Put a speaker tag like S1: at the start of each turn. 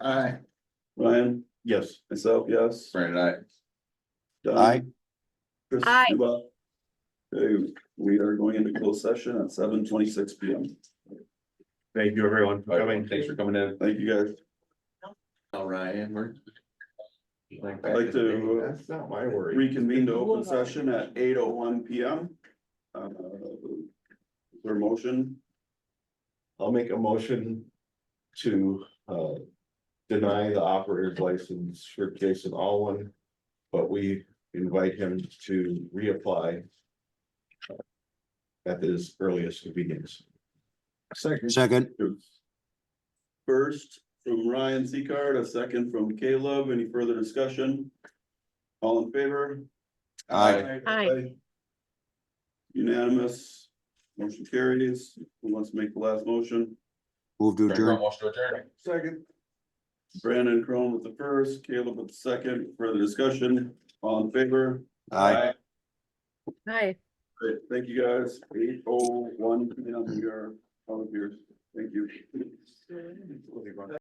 S1: Aye.
S2: Ryan,
S3: Yes.
S2: myself, yes.
S1: Brandon, aye.
S2: Don?
S3: Aye.
S2: Chris,
S4: Aye.
S2: you up? Okay, we are going into closed session at seven twenty-six P M.
S3: Thank you, everyone, for coming.
S1: Thanks for coming in.
S2: Thank you, guys.
S1: All Ryan, we're.
S2: I'd like to uh,
S3: That's not my worry.
S2: reconvene to open session at eight oh one P M. Uh, their motion,
S3: I'll make a motion to uh deny the operator's license for Jason Alwin. But we invite him to reapply. uh, At his earliest convenience. Second.
S5: Second,
S2: first from Ryan Seacard, a second from Caleb, any further discussion? All in favor?
S5: aye,
S4: Aye.
S2: Unanimous, motion carries, who wants to make the last motion?
S5: move to adjourn.
S2: Second. Brandon Crone with the first, Caleb with the second, further discussion, all in favor?
S5: Aye.
S4: Aye.
S2: Great, thank you guys, eight oh one, we are out of here, thank you.